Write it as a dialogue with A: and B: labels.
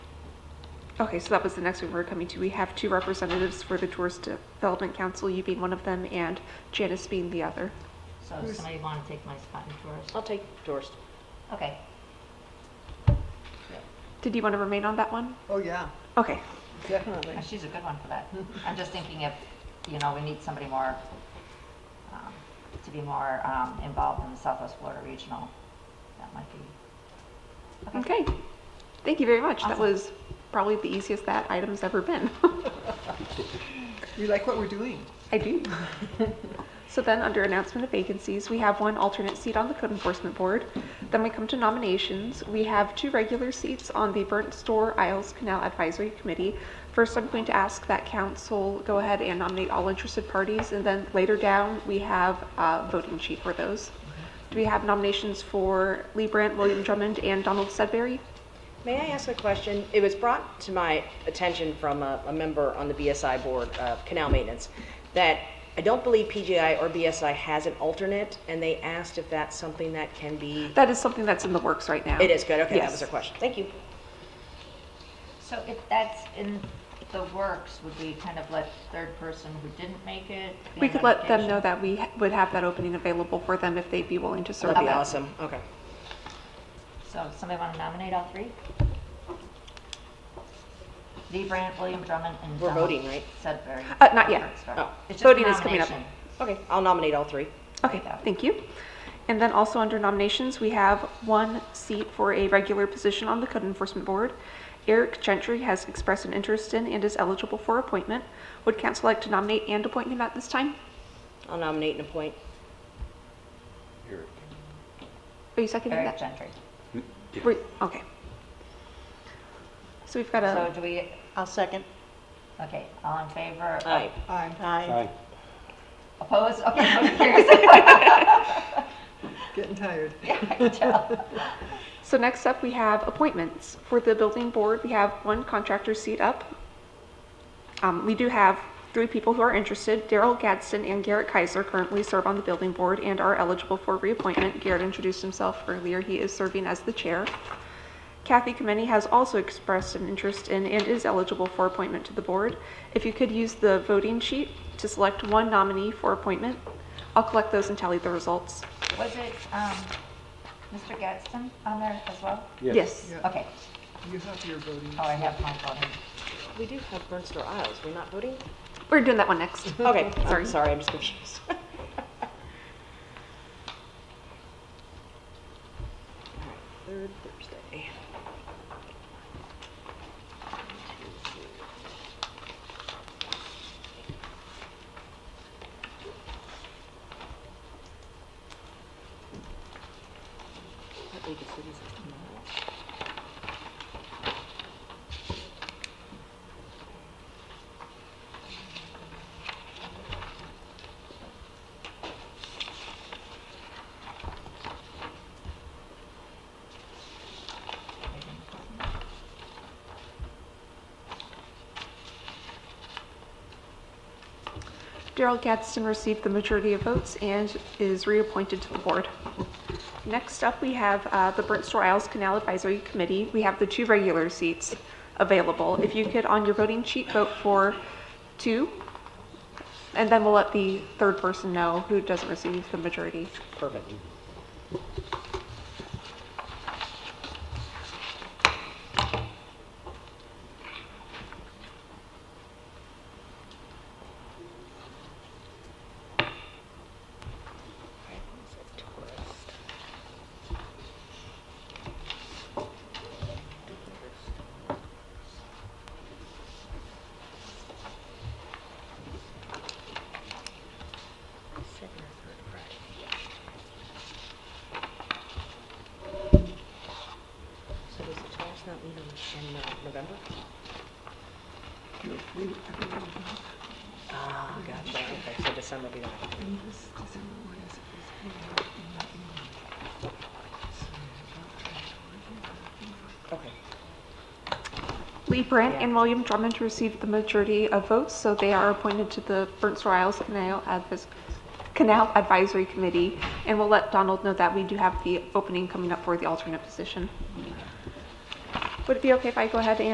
A: Okay, so that was the next one we were coming to. We have two representatives for the Tourist Development Council, you being one of them and Janice being the other.
B: So if somebody want to take my spot in tourist?
C: I'll take tourist.
B: Okay.
A: Did you want to remain on that one?
D: Oh, yeah,
A: Okay,
C: Definitely.
B: Oh, She's a good one for that. I'm just thinking if, you know, we need somebody more, um, to be more um, involved in the Southwest Florida Regional, that might be.
A: okay. Thank you very much. That
B: Awesome.
A: was probably the easiest that item's ever been.
D: we like what we're doing.
A: I do. So then, under announcement of vacancies, we have one alternate seat on the Code Enforcement Board. Then we come to nominations. We have two regular seats on the Burnt Store Isles Canal Advisory Committee. First, I'm going to ask that council go ahead and nominate all interested parties, and then later down, we have a voting sheet for those. Do we have nominations for Lee Brandt, William Drummond, and Donald Sudbury?
C: May I ask a question? It was brought to my attention from a, a member on the BSI board, uh, Canal Maintenance, that I don't believe PGI or BSI has an alternate, and they asked if that's something that can be.
A: That is something that's in the works right now.
C: It is good, okay, that
A: Yes.
C: was their question. Thank you.
B: So if that's in the works, would we kind of let third person who didn't make it? be
A: We could let them
B: notification?
A: know that we would have that opening available for them if they'd be willing to serve
C: That'd be
A: that.
C: awesome, okay.
B: So if somebody want to nominate all three? Lee Brandt, William Drummond, and
C: We're
B: Donald
C: voting, right?
B: Sudbury.
A: Uh, not yet.
B: Sorry.
C: Oh.
B: It's just
A: Voting is coming up.
B: nomination.
C: Okay, I'll nominate all three.
A: Okay,
B: Yeah.
A: thank you. And then also under nominations, we have one seat for a regular position on the Code Enforcement Board. Eric Gentry has expressed an interest in and is eligible for appointment. Would council like to nominate and appoint him at this time?
C: I'll nominate and appoint.
E: Eric.
A: Are you seconding
B: Eric
A: that?
B: Gentry.
A: Were you- Okay. So we've got
B: So
A: a,
B: do we,
F: I'll second.
B: okay, all in favor?
C: Aye.
F: Aye.
E: Aye.
B: Opposed? Okay, motion carries.
D: Getting tired.
B: Yeah, I can tell.
A: so next up, we have appointments. For the Building Board, we have one contractor seat up. Um, we do have three people who are interested. Daryl Gadsden and Garrett Kaiser currently serve on the building board and are eligible for reappointment. Garrett introduced himself earlier. He is serving as the chair. Kathy Kemeny has also expressed an interest in and is eligible for appointment to the board. If you could use the voting sheet to select one nominee for appointment, I'll collect those and tally the results.
B: Was it, um, Mr. Gadsden on there as well?
A: Yes.
D: Yeah.
B: Okay,
D: You have your voting.
B: oh, I have my voting.
C: We do have Burnstone Isles, we're not voting?
A: We're doing that one next.
C: Okay,
A: Sorry.
C: I'm sorry, I'm just confused. Third Thursday. What League of Cities is tomorrow?
A: Daryl Gadsden received the majority of votes and is reappointed to the board. Next up, we have uh, the Burnt Store Isles Canal Advisory Committee. We have the two regular seats available. If you could, on your voting sheet, vote for two, and then we'll let the third person know who doesn't receive the majority.
C: Perfect. So does the Taurus not meet in, in uh, November? Ah, gotcha, okay, so December be that. Okay,
A: Lee Brandt
C: Yeah.
A: and William Drummond received the majority of votes, so they are appointed to the Burnt Store Isles Canal Advis- Canal Advisory Committee, and we'll let Donald know that we do have the opening coming up for the alternate position. Would it be okay if I go ahead and